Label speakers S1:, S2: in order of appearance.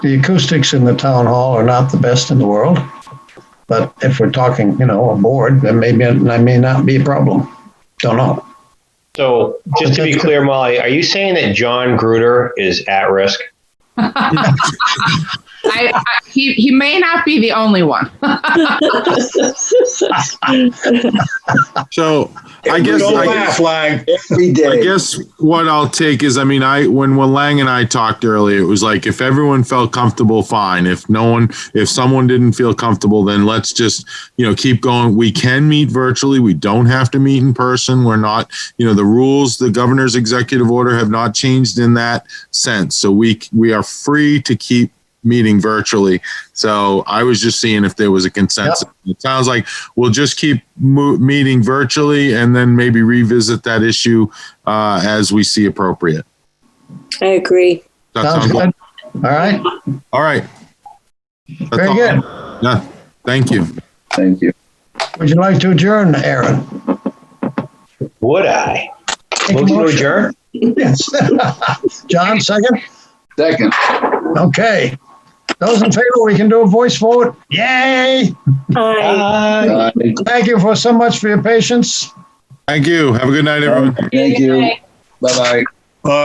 S1: the acoustics in the town hall are not the best in the world. But if we're talking, you know, a board, then maybe that may not be a problem. Don't know.
S2: So just to be clear, Molly, are you saying that John Gruder is at risk?
S3: I, I, he, he may not be the only one.
S4: So I guess,
S5: Don't
S4: I
S5: laugh,
S4: guess,
S5: Lang.
S6: Every
S4: I
S6: day.
S4: guess what I'll take is, I mean, I, when, when Lang and I talked earlier, it was like, if everyone felt comfortable, fine. If no one, if someone didn't feel comfortable, then let's just, you know, keep going. We can meet virtually. We don't have to meet in person. We're not, you know, the rules, the governor's executive order have not changed in that sense. So we, we are free to keep meeting virtually. So I was just seeing if there was a consensus. It sounds like we'll just keep mo- meeting virtually and then maybe revisit that issue uh, as we see appropriate.
S7: I agree.
S4: That
S1: Sounds
S4: sounds-
S1: good. All right,
S4: All right. That's
S1: very
S4: all.
S1: good.
S4: Yeah, thank you.
S6: Thank you.
S1: Would you like to adjourn, Aaron?
S2: Would I?
S1: Take a
S2: Motion to
S1: motion.
S2: adjourn?
S1: Yes. John, second?
S6: Second.
S1: Okay. Those in favor, we can do a voice vote. Yay!
S7: Aye.
S2: Aye.
S6: Aye.
S1: Thank you for so much for your patience.
S4: Thank you. Have a good night, everyone.
S6: Thank you. Bye-bye.